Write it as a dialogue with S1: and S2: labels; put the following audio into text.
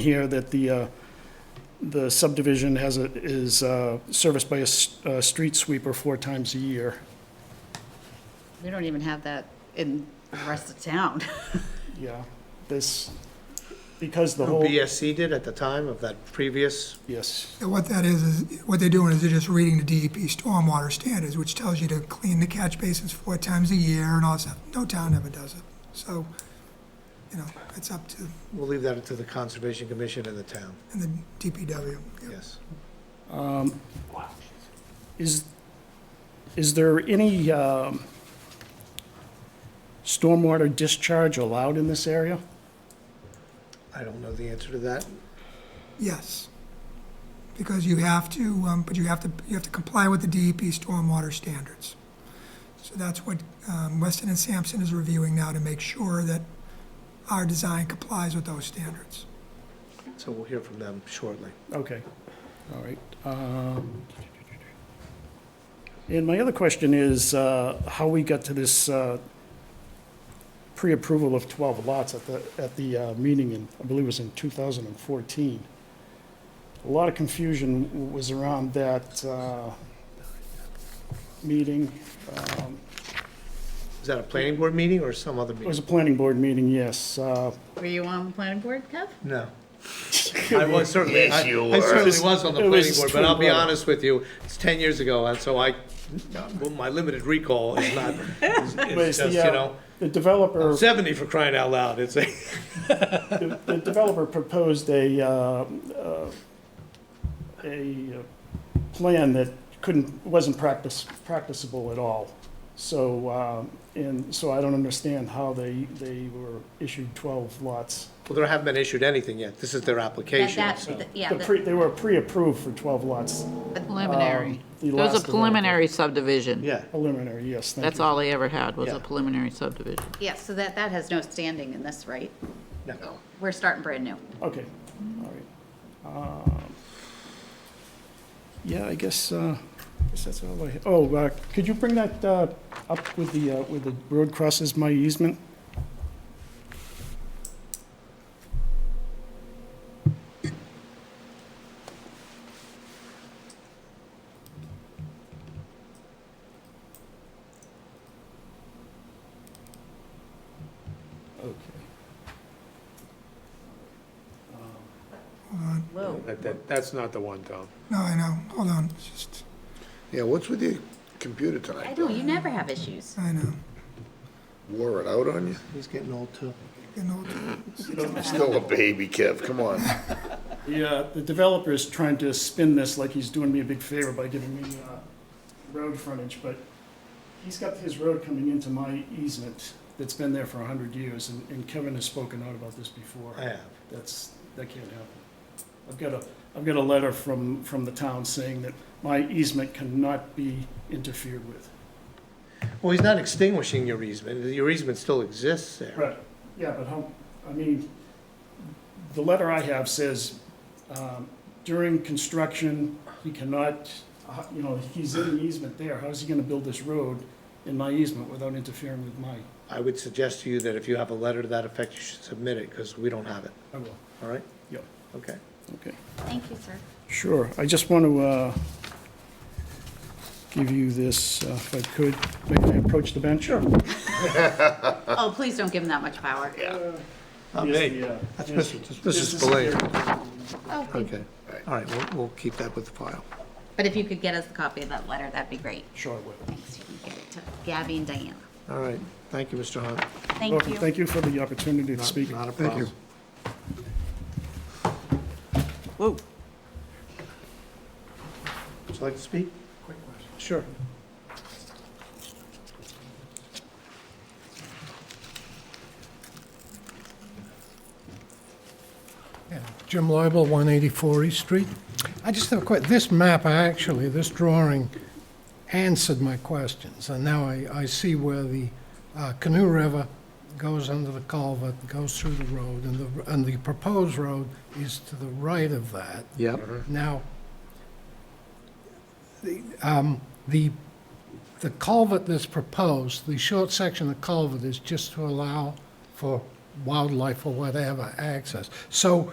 S1: here that the, uh, the subdivision has a, is uh, serviced by a, s- a street sweeper four times a year.
S2: We don't even have that in the rest of town.
S1: Yeah, this, because the whole,
S3: BSC did at the time of that previous,
S1: yes,
S4: So What that is, is what they're doing is they're just reading the DEP stormwater standards, which tells you to clean the catch basins four times a year and all that stuff. No town ever does it. So, you know, it's up to,
S3: we'll leave that to the Conservation Commission and the town,
S4: and the DPW. Yep.
S3: yes.
S1: is, is there any um, stormwater discharge allowed in this area?
S3: I don't know the answer to that.
S4: Yes. Because you have to, um, but you have to, you have to comply with the DEP stormwater standards. So that's what, um, Weston and Sampson is reviewing now to make sure that our design complies with those standards.
S3: So we'll hear from them shortly.
S1: Okay, all right. Um, And my other question is uh, how we got to this uh, pre-approval of 12 lots at the, at the uh, meeting in, I believe it was in 2014. A lot of confusion w- was around that uh, meeting. Um,
S3: Is that a planning board meeting or some other
S1: It was
S3: meeting?
S1: a planning board meeting, yes. Uh,
S2: Were you on the planning board, Kev?
S3: No. I was certainly, I I certainly was on the
S1: It was
S3: planning
S1: his
S3: board, but I'll be
S1: twin brother.
S3: honest with you, it's ten years ago, and so I, well, my limited recall is not, is-
S1: but
S3: is
S1: it's
S3: just,
S1: the,
S3: you
S1: uh,
S3: know,
S1: The developer.
S3: seventy for crying out loud, it's a.
S1: The the developer proposed a, uh, uh, a uh, plan that couldn't, wasn't practice, practicable at all. So, um, and so I don't understand how they, they were issued 12 lots.
S3: Well, they haven't been issued anything yet, this is their application,
S2: That-
S3: so.
S2: that- Yeah,
S1: The
S2: that-
S1: pre- They were pre-approved for 12 lots.
S5: Preliminary.
S1: the
S5: It
S1: last
S5: was
S1: of
S5: a
S1: the-
S5: preliminary subdivision.
S3: Yeah,
S1: Preliminary, yes, thank
S5: That's
S1: you.
S5: all they ever had, was
S3: Yeah.
S5: a preliminary subdivision.
S2: yeah, so that, that has no standing in this, right?
S3: no,
S2: We're starting brand new.
S1: Okay, all right. Um, Yeah, I guess, uh, I guess that's all I, oh, uh, could you bring that uh, up with the, uh, with the road crosses my easement? Okay.
S6: That, that, that's not the one, Tom.
S4: No, I know, hold on, It's just,
S7: Yeah, what's with your computer tonight?
S2: I know, you never have issues.
S4: I know.
S7: Wore it out on you?
S3: he's getting old too.
S4: You know,
S7: Still a baby, Kev, come on.
S1: Yeah, the developer is trying to spin this like he's doing me a big favor by giving me uh, road frontage, but he's got his road coming into my easement that's been there for 100 years, and- and Kevin has spoken out about this before.
S3: I have.
S1: That's, that can't happen. I've got a, I've got a letter from, from the town saying that my easement cannot be interfered with.
S3: Well, he's not extinguishing your easement, your easement still exists there.
S1: Right, yeah, but how, I mean, the letter I have says, um, during construction, he cannot, uh, you know, he's in the easement there, how's he gonna build this road in my easement without interfering with my,
S3: I would suggest to you that if you have a letter to that effect, you should submit it, because we don't have it,
S1: I will,
S3: all right?
S1: yeah,
S3: Okay.
S1: okay.
S2: Thank you, sir.
S1: Sure, I just want to, uh, give you this, uh, if I could, may I approach the bench? Sure.
S2: Oh, please don't give him that much power. Oh,
S3: Not me.
S1: uh,
S3: That's Mr. Mrs. Spillane. Okay, all right, we'll, we'll keep that with the file.
S2: But if you could get us a copy of that letter, that'd be great.
S1: Sure, I will.
S2: Thanks, you can get it to Gabby and Diana.
S3: All right, thank you, Mr. Hunt.
S2: Thank
S1: Welcome,
S2: you.
S1: thank you for the opportunity to speak.
S3: Not a problem.
S5: Whoa.
S3: Would you like to speak? Quick question. Sure.
S8: Jim Leibel, 184 East Street. I just have a quick, this map, I actually, this drawing answered my questions, and now I, I see where the uh, Canoe River goes under the culvert, goes through the road, and the, and the proposed road is to the right of that.
S3: Yep.
S1: Mm-hmm.
S8: Now, the, um, the, the culvert that's proposed, the short section of culvert is just to allow for wildlife or whatever access. So